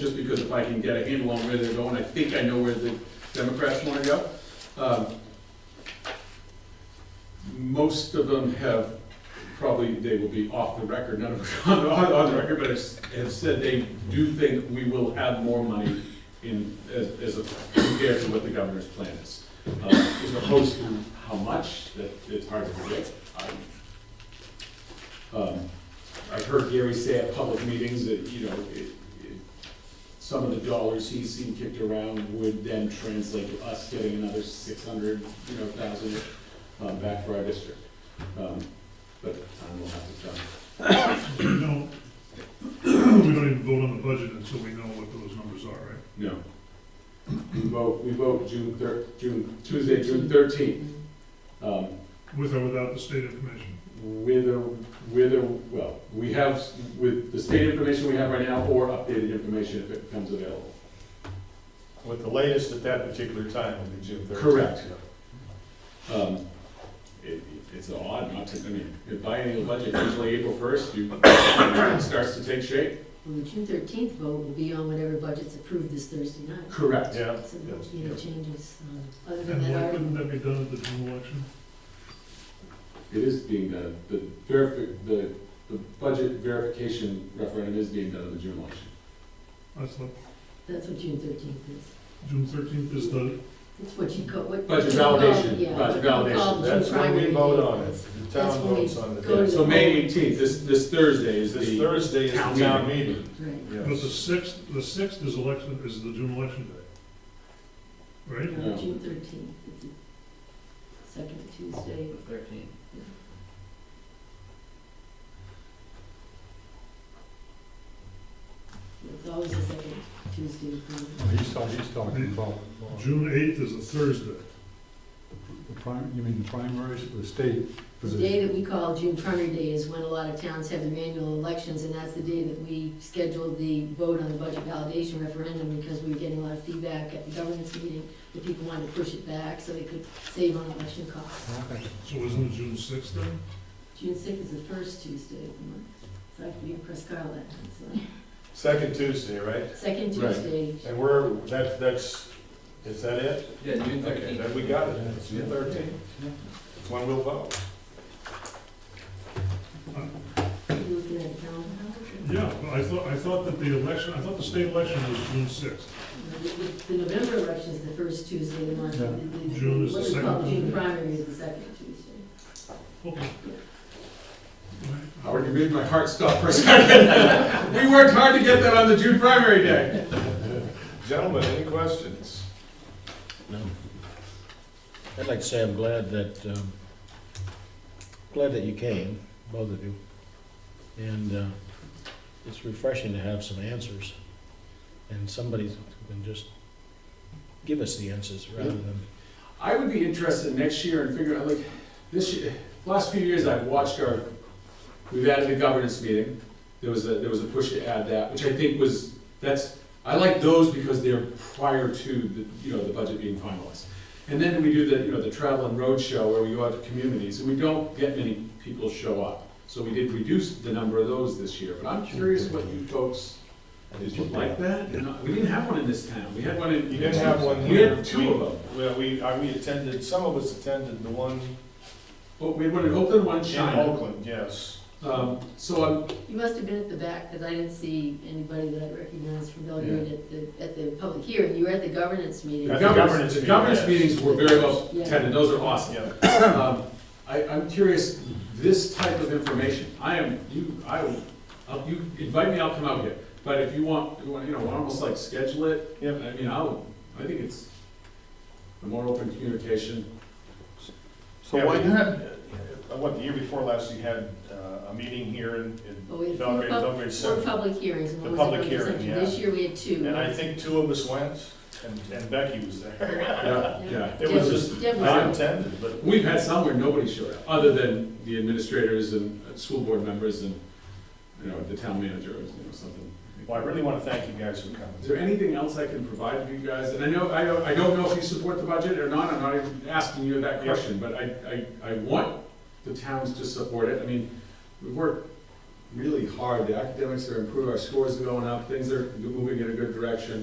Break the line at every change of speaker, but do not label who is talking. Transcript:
just because if I can get a handle on where they're going, I think I know where the Democrats want to go. Um, Most of them have, probably, they will be off the record, none of them are on, on the record, but have s- have said they do think we will have more money in, as, as a- compared to what the governor's plan is. Uh, As opposed to how much, that it's hard to predict. I- um, I've heard Gary say at public meetings that, you know, it, it some of the dollars he's seen kicked around would then translate to us getting another six hundred, you know, thousand, um, back for our district. Um, but time will have to tell.
We don't, we don't even vote on the budget until we know what those numbers are, right?
No. We vote, we vote June thir, June, Tuesday, June thirteenth. Um,
With or without the state information.
with or, with or, well, we have, s- with the state information we have right now, or updated information if it becomes available.
With the latest at that particular time will be June 13th.
Correct. Um, it, it's odd not to, I mean, your biennial budget, usually April first, you, it starts to take shape.
Well, the June thirteenth vote will be on whatever budget's approved this Thursday night.
Correct.
Yeah.
So there won't be any changes, um, other than
And
that,
why
our-
couldn't that be done at the June election?
It is being done, the verifi, the, the budget verification referendum is being done in the June election.
That's not,
that's what June thirteenth is.
June thirteenth is the,
It's what you call, what.
Budget
you call-
validation,
yeah,
budget
what you call
validation.
Um, June
That's when
primary
we vote
date.
on it. The
That's
town
when we
votes on the
go
day.
to-
So May eighteenth, this, this Thursday is
This
the,
Thursday is
Town
the town meeting.
Right.
but the sixth, the sixth is election, is the June election day. Right?
Yeah.
Uh, June thirteenth, it's the second Tuesday.
Thirteen.
It's always the second Tuesday. of the month.
He's talking, he's talking about,
June eighth is a Thursday.
the prim, you mean the primaries for the state
The
position?
day that we call June primary day is when a lot of towns have their annual elections, and that's the day that we scheduled the vote on the budget validation referendum, because we were getting a lot of feedback at the governance meeting, that people wanted to push it back so they could save on election costs.
Okay.
So isn't it June sixth then?
June sixth is the first Tuesday of the month, so I have to be in Prescott that time,
Second Tuesday, right?
so, second
Right.
Tuesday.
And we're, that, that's, is that it?
Yeah, June
Okay,
thirteenth.
then we got it. It's June 13th. It's when we'll vote.
Are you looking at the calendar?
Yeah, but I thought, I thought that the election, I thought the state election was June sixth.
The- the- The November election is the first Tuesday of the month,
Yeah.
and the-
June is the
what we call
second
June
Tuesday.
primary is the second Tuesday.
Okay.
Howard, you made my heart stop for a second. We worked hard to get that on the June primary day.
Gentlemen, any questions?
No. I'd like to say I'm glad that, um, glad that you came, both of you. And uh, it's refreshing to have some answers. And somebody who can just give us the answers rather than,
I would be interested next year in figuring out, like, this year, last few years, I've watched our, we've added a governance meeting. There was a, there was a push to add that, which I think was, that's, I like those because they're prior to the, you know, the budget being finalized. And then we do the, you know, the travel and road show where we go out to communities, and we don't get many people show up. So we did reduce the number of those this year, but I'm curious what you folks, did you like that? You know, We didn't have one in this town, we had one in.
You didn't have one
We
here.
had two of them.
Well, we, I- we attended, some of us attended the one
Well, we would have opened one
in
China.
Oakland, yes.
Um, so I'm,
You must have been at the back, because I didn't see anybody that I recognized from Belgrade at the, at the public hearing. You were at the governance meeting.
the
At
governance,
governance
the
meeting,
governance
yes.
meetings were very well
Yeah.
attended, those are awesome.
Yeah.
Um, I, I'm curious, this type of information, I am, you, I will, I'll- you invite me, I'll come out here. But if you want, you want, you know, almost like schedule it, I
Yep.
mean, I'll, I think it's a more open communication.
Yeah, we had, uh, what, the year before last, we had uh, a meeting here in
But Oh, we
in
had four,
Belgrade,
pub-
Belgrade
four
Center.
public hearings, and
The
one was at
public
Belgrade
hearing,
Center.
yeah.
This year we had two.
And I think two of us went, and and Becky was there.
Yeah, yeah.
It was
Deb-
just,
Deb was
I
out.
attended, but
We've had some where nobody showed up, other than the administrators and uh, school board members and, you know, the town manager or you know, something.
well, I really want to thank you guys for
Is
coming.
there anything else I can provide you guys? And I know, I don't, I don't know if you support the budget or not, I'm not even asking you that question, but I, I, I want the towns to support it. I mean, we work really hard. The academics are improving, our scores are going up, things are moving in a good direction.